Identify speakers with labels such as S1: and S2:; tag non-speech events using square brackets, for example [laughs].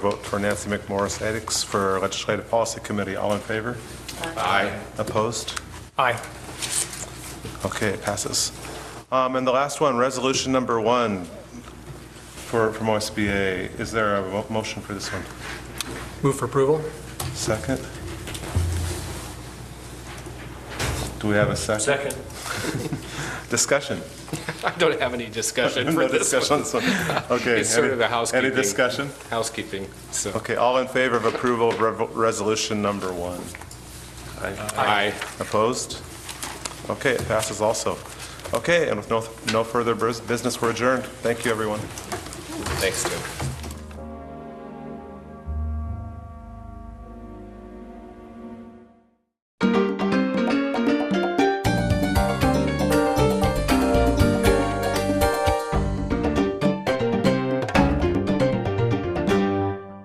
S1: Vote for Nancy McMorris Edix for Legislative Policy Committee. All in favor? Aye. Opposed?
S2: Aye.
S1: Okay, it passes. Um, And the last one, Resolution Number One for, from OSBA. Is there a mo- motion for this one?
S2: Move for approval?
S1: Second? Do we have a second?
S3: Second.
S1: Discussion?
S3: I don't have any
S1: [laughs]
S3: discussion for
S1: No
S3: this
S1: discussion
S3: one.
S1: on this one.
S3: [laughs]
S1: Okay.
S3: It's sort
S1: any-
S3: of a housekeeping.
S1: Any discussion?
S3: Housekeeping, so.
S1: Okay, all in favor of approval of rev- Resolution Number One?
S3: Aye.
S1: Opposed? Okay, it passes also. Okay, and with no, no further bus- business, we're adjourned. Thank you, everyone.
S3: Thanks, Tim.